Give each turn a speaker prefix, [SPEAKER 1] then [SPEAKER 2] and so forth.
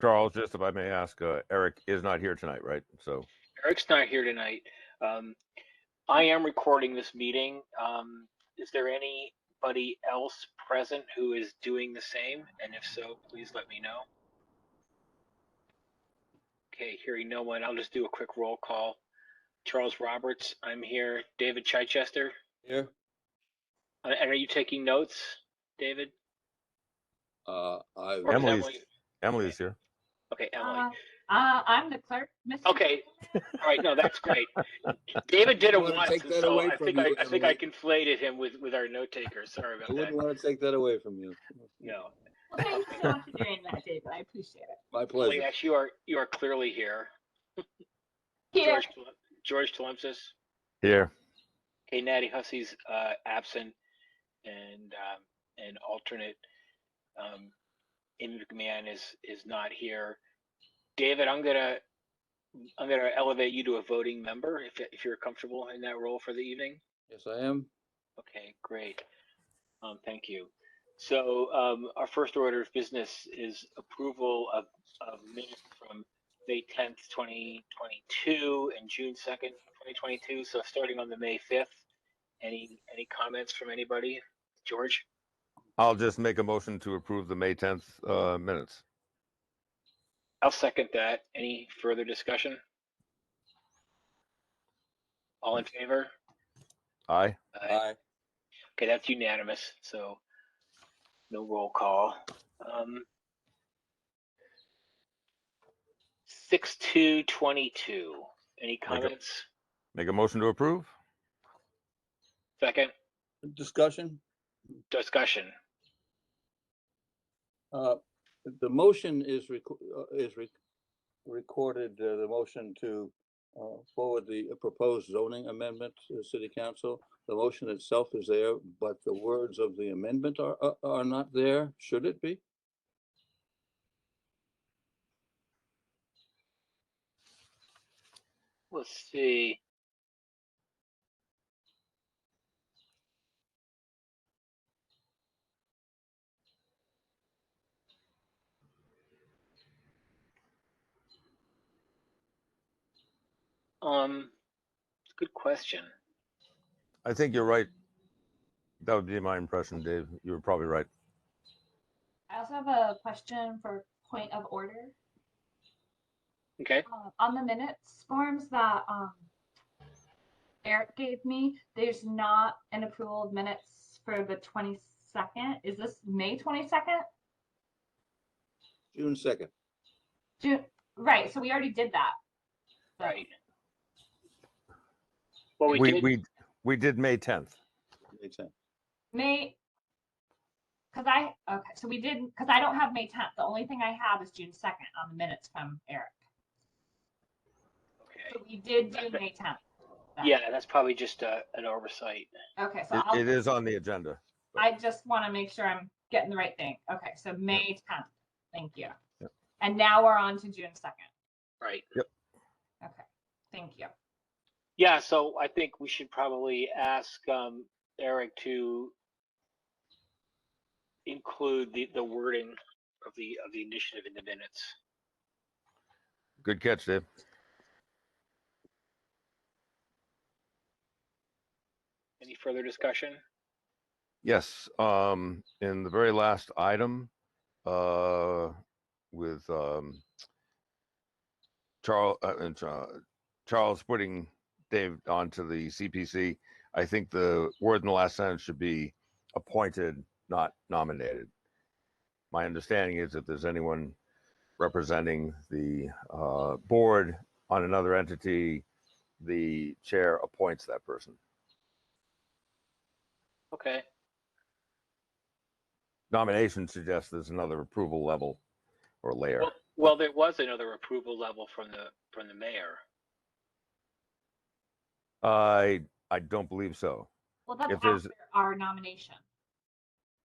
[SPEAKER 1] Charles, just if I may ask, uh, Eric is not here tonight, right? So,
[SPEAKER 2] Eric's not here tonight. Um, I am recording this meeting. Um, is there anybody else present who is doing the same? And if so, please let me know. Okay, hearing no one, I'll just do a quick roll call. Charles Roberts, I'm here. David Chichester,
[SPEAKER 3] Here,
[SPEAKER 2] uh, and are you taking notes, David?
[SPEAKER 3] uh, I,
[SPEAKER 2] Or is
[SPEAKER 1] Emily's-
[SPEAKER 2] Emily-
[SPEAKER 1] Emily's here.
[SPEAKER 2] Okay, Emily.
[SPEAKER 4] Uh, uh, I'm the clerk, Mr.
[SPEAKER 2] Okay. All right, no, that's great. David did it
[SPEAKER 3] I wouldn't
[SPEAKER 2] once,
[SPEAKER 3] take
[SPEAKER 2] and
[SPEAKER 3] that
[SPEAKER 2] so
[SPEAKER 3] away
[SPEAKER 2] I
[SPEAKER 3] from
[SPEAKER 2] think I,
[SPEAKER 3] you,
[SPEAKER 2] I think I conflated him with, with our note taker. Sorry
[SPEAKER 3] I
[SPEAKER 2] about
[SPEAKER 3] wouldn't
[SPEAKER 2] that.
[SPEAKER 3] want to take that away from you.
[SPEAKER 2] No,
[SPEAKER 4] Well, thank you so much for doing that, David. I appreciate it.
[SPEAKER 3] My
[SPEAKER 2] Well,
[SPEAKER 3] pleasure.
[SPEAKER 2] yes, you are, you are clearly here.
[SPEAKER 4] Here,
[SPEAKER 2] George, Tele- George Tlemcen,
[SPEAKER 1] Here.
[SPEAKER 2] okay, Natty Hussey's, uh, absent and, um, an alternate. Um, Amy McMahon is, is not here. David, I'm gonna, I'm gonna elevate you to a voting member if, if you're comfortable in that role for the evening.
[SPEAKER 3] Yes, I am.
[SPEAKER 2] Okay, great. Um, Thank you. So um, our first order of business is approval of of minutes from May 10th, 2022 and June 2nd, 2022. So starting on the May 5th, any, any comments from anybody? George?
[SPEAKER 1] I'll just make a motion to approve the May 10th uh, minutes.
[SPEAKER 2] I'll second that. Any further discussion? All in favor?
[SPEAKER 1] Aye.
[SPEAKER 3] Aye.
[SPEAKER 2] Okay, that's unanimous, so no roll call. Um, six two twenty-two. Any comments?
[SPEAKER 1] Make a motion to approve?
[SPEAKER 2] Second
[SPEAKER 3] Discussion?
[SPEAKER 2] discussion.
[SPEAKER 3] Uh, the motion is reco- uh, is rec- recorded, uh, the motion to uh, forward the proposed zoning amendment to the city council. The motion itself is there, but the words of the amendment are, are- are not there. Should it be?
[SPEAKER 2] Let's see. Um, good question.
[SPEAKER 1] I think you're right. That would be my impression, Dave. You were probably right.
[SPEAKER 4] I also have a question for point of order.
[SPEAKER 2] Okay.
[SPEAKER 4] Uh, On the minutes forms that um, Eric gave me, there's not an approval of minutes for the 22nd. Is this May 22nd?
[SPEAKER 3] June second.
[SPEAKER 4] June, right, so we already did that. So-
[SPEAKER 2] Right. Well, we
[SPEAKER 1] We,
[SPEAKER 2] did,
[SPEAKER 1] we, we did May 10th.
[SPEAKER 4] May, because I, okay, so we didn't, because I don't have May 10th. The only thing I have is June 2nd on the minutes from Eric.
[SPEAKER 2] okay.
[SPEAKER 4] So we did do May 10th. then.
[SPEAKER 2] Yeah, that's probably just uh an oversight.
[SPEAKER 4] Okay, so
[SPEAKER 1] It-
[SPEAKER 4] I'll,
[SPEAKER 1] It is on the agenda.
[SPEAKER 4] I just want to make sure I'm getting the right thing. Okay, so May 10th. Thank you.
[SPEAKER 1] Yep.
[SPEAKER 4] And now we're on to June 2nd.
[SPEAKER 2] Right.
[SPEAKER 4] Okay, thank you.
[SPEAKER 2] Yeah, so I think we should probably ask um, Eric to include the, the wording of the, of the initiative in the minutes.
[SPEAKER 1] Good catch, Dave.
[SPEAKER 2] Any further discussion?
[SPEAKER 1] Yes, um, in the very last item, uh, with, um, Charles, uh, uh, Cha- Charles putting Dave onto the CPC, I think the word in the last sentence should be appointed, not nominated. My understanding is if there's anyone representing the, uh, board on another entity, the chair appoints that person.
[SPEAKER 2] Okay,
[SPEAKER 1] nomination suggests there's another approval level or layer.
[SPEAKER 2] well, there was another approval level from the, from the mayor.
[SPEAKER 1] I I don't believe so.
[SPEAKER 4] Well, that's
[SPEAKER 1] If there's-
[SPEAKER 4] after our nomination.